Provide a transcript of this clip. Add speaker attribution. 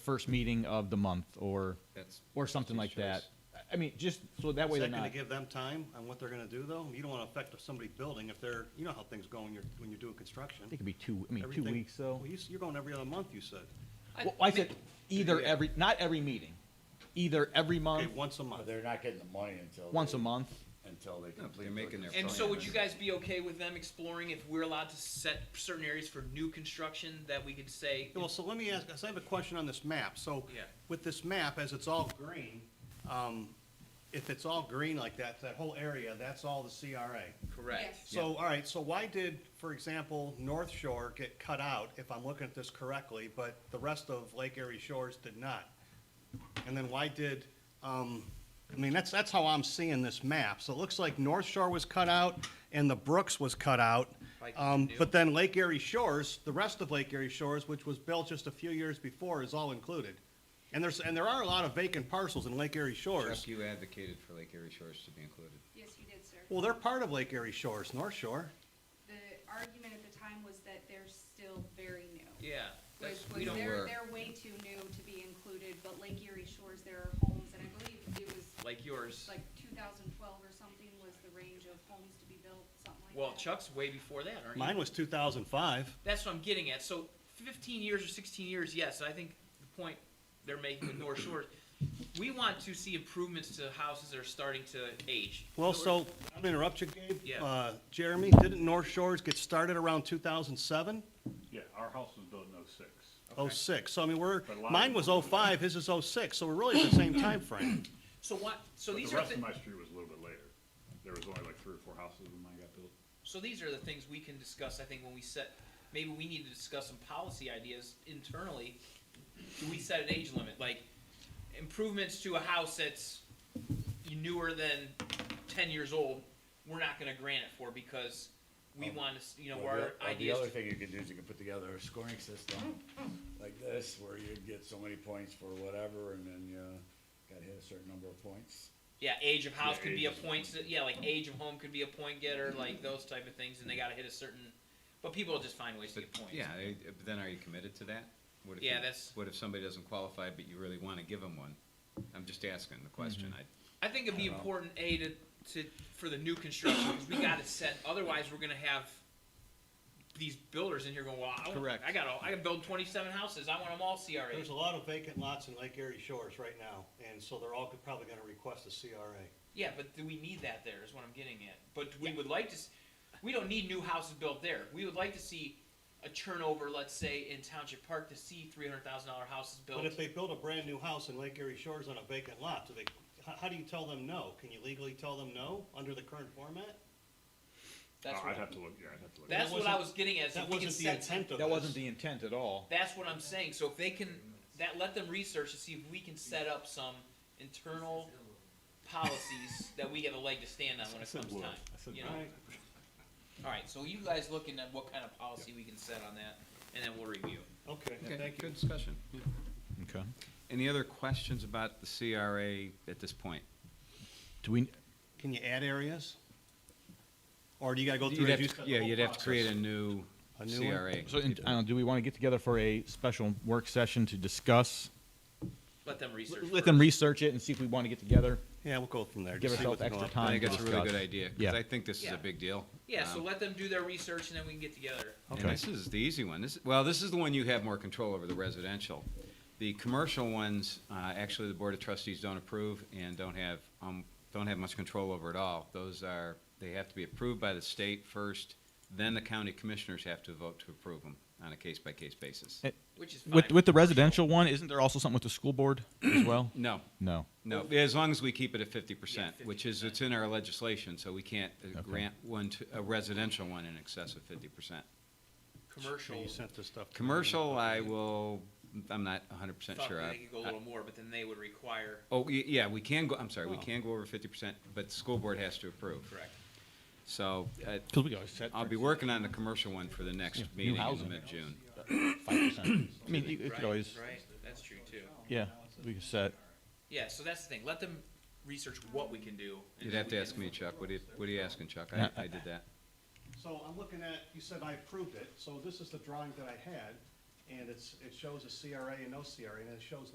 Speaker 1: first meeting of the month or,
Speaker 2: That's-
Speaker 1: or something like
Speaker 2: that's your
Speaker 1: that.
Speaker 2: choice.
Speaker 1: I mean, just so that way
Speaker 3: Is
Speaker 1: they're
Speaker 3: that gonna
Speaker 1: not.
Speaker 3: give them time on what they're gonna do, though? You don't wanna affect somebody building if they're, you know how things go when you're, when you're doing construction.
Speaker 1: I think it'd be two, I mean, two
Speaker 3: Everything-
Speaker 1: weeks though.
Speaker 3: Well, you, s- you're going every other month, you said.
Speaker 1: Well, I said either
Speaker 2: Yeah.
Speaker 1: every, not every meeting, either every
Speaker 3: Okay,
Speaker 1: month,
Speaker 3: once a
Speaker 4: But
Speaker 3: month.
Speaker 4: they're not getting the money until.
Speaker 1: once
Speaker 4: they-
Speaker 1: a month.
Speaker 4: Until
Speaker 2: No,
Speaker 4: they.
Speaker 2: but they're
Speaker 4: complete
Speaker 2: making
Speaker 4: their
Speaker 2: their
Speaker 5: And
Speaker 2: plan.
Speaker 5: so would you guys be okay with them exploring if we're allowed to set certain areas for new construction that we could say?
Speaker 3: Well, so let me ask, 'cause I have a question on this map. So
Speaker 5: Yeah.
Speaker 3: with this map, as it's all green, um, if it's all green like that, that whole area, that's all the CRA.
Speaker 5: Correct.
Speaker 3: So, all right, so why did, for example, North Shore get cut out, if I'm looking at this correctly, but the rest of Lake Erie Shores did not? And then why did, um, I mean, that's, that's how I'm seeing this map. So it looks like North Shore was cut out and the Brooks was cut out.
Speaker 5: Like
Speaker 3: Um,
Speaker 5: you do.
Speaker 3: but then Lake Erie Shores, the rest of Lake Erie Shores, which was built just a few years before, is all included. And there's, and there are a lot of vacant parcels in Lake Erie
Speaker 2: Chuck,
Speaker 3: Shores.
Speaker 2: you advocated for Lake Erie Shores to be included.
Speaker 6: Yes, you did, sir.
Speaker 3: Well, they're part of Lake Erie Shores, North Shore.
Speaker 6: The argument at the time was that they're still very new.
Speaker 5: Yeah.
Speaker 6: Was,
Speaker 5: that's- we
Speaker 6: was
Speaker 5: don't-
Speaker 6: they're,
Speaker 2: work.
Speaker 6: they're way too new to be included, but Lake Erie Shores, there are homes, and I believe it was
Speaker 5: Like yours.
Speaker 6: like two thousand twelve or something was the range of homes to be built, something like that.
Speaker 5: Well, Chuck's way before that, aren't you?
Speaker 3: Mine was two thousand five.
Speaker 5: That's what I'm getting at. So 15 years or 16 years, yes. I think the point they're making with North Shore, we want to see improvements to houses that are starting to age.
Speaker 3: Well,
Speaker 5: we're-
Speaker 3: so, I'm gonna interrupt you, Gabe.
Speaker 5: Yeah.
Speaker 3: Uh, Jeremy, didn't North Shores get started around 2007,
Speaker 7: Yeah, our house was built in '06.
Speaker 3: 06? So I mean, we're,
Speaker 7: But a lot of
Speaker 3: mine was
Speaker 7: them-
Speaker 3: 05, his is 06, so we're really at the same time frame.
Speaker 5: So what? So
Speaker 7: But
Speaker 5: these
Speaker 7: the
Speaker 5: are
Speaker 7: rest
Speaker 5: thi-
Speaker 7: of my street was a little bit later. There was only like three or four houses when mine got built.
Speaker 5: so these are the things we can discuss. I think when we set, maybe we need to discuss some policy ideas internally. Do we set an age limit, like improvements to a house that's newer than ten years old? We're not going to grant it for because we
Speaker 4: Um,
Speaker 5: want to, you know,
Speaker 4: Well, the-
Speaker 5: our
Speaker 4: well,
Speaker 5: ideas.
Speaker 4: The other thing you can do is you can put together a scoring system like this, where you'd get so many points for whatever, and then you gotta hit a certain number of points.
Speaker 5: yeah, age of house
Speaker 7: Yeah,
Speaker 5: could be a
Speaker 7: age is
Speaker 5: point. Yeah, like age of home could be a point getter, like those type of things, and they got to hit a certain. But people just find ways to
Speaker 2: But,
Speaker 5: get points.
Speaker 2: yeah, I- but then are you committed to that? What if
Speaker 5: Yeah,
Speaker 2: you-
Speaker 5: that's-
Speaker 2: What if somebody doesn't qualify, but you really want to give them one? I'm just asking the question. I,
Speaker 1: Mm-hmm.
Speaker 5: I think it'd be
Speaker 4: Well-
Speaker 5: important a to, to for the new construction because we got to set. Otherwise, we're gonna have these builders in here going, "Well, I, want-
Speaker 1: Correct.
Speaker 5: I got all, I can build twenty seven houses. I want them all CRA."
Speaker 3: There's a lot of vacant lots in Lake Erie Shores right now, and so they're all could- probably gonna request a CRA.
Speaker 5: yeah, but do we need that there? Is what I'm getting at. But we would like to. s- We don't need new houses built there. We would like to see a turnover, let's say, in Township Park to see three hundred thousand dollar houses built.
Speaker 3: But if they build a brand-new house in Lake Erie Shores on a vacant lot, do they, how, how do you tell them no? Can you legally tell them no under the current format?
Speaker 5: that's
Speaker 7: Oh,
Speaker 5: what,
Speaker 7: I'd have to look, yeah, I'd have to look.
Speaker 5: that's
Speaker 3: That
Speaker 5: what I
Speaker 3: wasn't-
Speaker 5: was getting at. is
Speaker 3: That
Speaker 5: if we can
Speaker 3: wasn't the
Speaker 5: set
Speaker 3: intent of this.
Speaker 1: That wasn't the intent at all.
Speaker 5: That's what I'm saying. So if they can, that let them research to see if we can set up some internal policies that we have a leg to stand on when it comes
Speaker 7: wood.
Speaker 5: time.
Speaker 7: I said
Speaker 5: You know,
Speaker 3: All right.
Speaker 5: all right. So you guys looking at what kind of policy we can set on that, and then we'll review.
Speaker 3: Okay,
Speaker 2: okay,
Speaker 3: thank you.
Speaker 2: good discussion.
Speaker 1: Okay.
Speaker 2: Any other questions about the CRA at this point?
Speaker 1: Do we,
Speaker 3: Can you add areas? Or do you gotta go through?
Speaker 2: You'd
Speaker 3: as
Speaker 2: have
Speaker 3: you
Speaker 2: to-
Speaker 3: said, the
Speaker 2: Yeah,
Speaker 3: whole
Speaker 2: you'd have to
Speaker 3: process?
Speaker 2: create a new
Speaker 3: A new one?
Speaker 2: CRA.
Speaker 1: so, in- I don't, know, do we want to get together for a special work session to discuss?
Speaker 5: Let them research.
Speaker 1: Let
Speaker 5: first.
Speaker 1: them research it and see if we want to get together,
Speaker 3: Yeah, we'll go from there.
Speaker 1: give
Speaker 3: Just see
Speaker 1: ourselves
Speaker 3: what's going
Speaker 1: extra
Speaker 3: on.
Speaker 1: time.
Speaker 2: I think
Speaker 1: to
Speaker 2: that's a really
Speaker 1: discuss.
Speaker 2: good idea, because
Speaker 1: Yeah.
Speaker 2: I think this is
Speaker 5: Yeah.
Speaker 2: a big deal.
Speaker 5: Yeah. So
Speaker 2: Um,
Speaker 5: let them do their research, and then we can get together.
Speaker 2: And
Speaker 1: Okay.
Speaker 2: this is the easy one. This, well, this is the one you have more control over, the residential. The commercial ones, uh, actually, the Board of Trustees don't approve and don't have, um, don't have much control over at all. Those are, they have to be approved by the state first, then the county commissioners have to vote to approve them on a case-by-case basis.
Speaker 5: Which is fine.
Speaker 1: With, with the residential one, isn't there also something with the school board as well?
Speaker 2: No,
Speaker 1: No.
Speaker 2: no, as long as we keep it at fifty percent,
Speaker 5: Yeah,
Speaker 2: which is, it's in our legislation, so we can't uh,
Speaker 1: Okay.
Speaker 2: grant one to, a residential one in excess of fifty percent.
Speaker 5: commercial.
Speaker 3: You sent this stuff. to me.
Speaker 2: Commercial, I will, I'm not hundred percent
Speaker 5: Thought
Speaker 2: sure.
Speaker 5: they
Speaker 2: I-
Speaker 5: could go a
Speaker 2: I-
Speaker 5: little more, but then they would require.
Speaker 2: Oh, y- yeah, we can go, I'm sorry, we can go over fifty percent, but the school board has to approve.
Speaker 5: Correct.
Speaker 2: So, uh,
Speaker 1: Because we always set
Speaker 2: I'll be working on the commercial one for the next
Speaker 1: Yeah, new
Speaker 2: meeting in the
Speaker 1: housing.
Speaker 2: mid-June.
Speaker 1: five percent. I mean, you you
Speaker 5: right,
Speaker 1: could always,
Speaker 5: Right. That's true too.
Speaker 1: yeah, we could set.
Speaker 5: Yeah. So that's the thing. Let them research what we can do. and
Speaker 2: You'd
Speaker 5: then
Speaker 2: have
Speaker 5: we
Speaker 2: to
Speaker 5: can-
Speaker 2: ask me, Chuck, what are you, what are you asking, Chuck? I,
Speaker 1: Yeah.
Speaker 2: I did that.
Speaker 3: So I'm looking at, you said I approved it, so this is the drawing that I had, and it's, it shows a CRA and no CRA, and it shows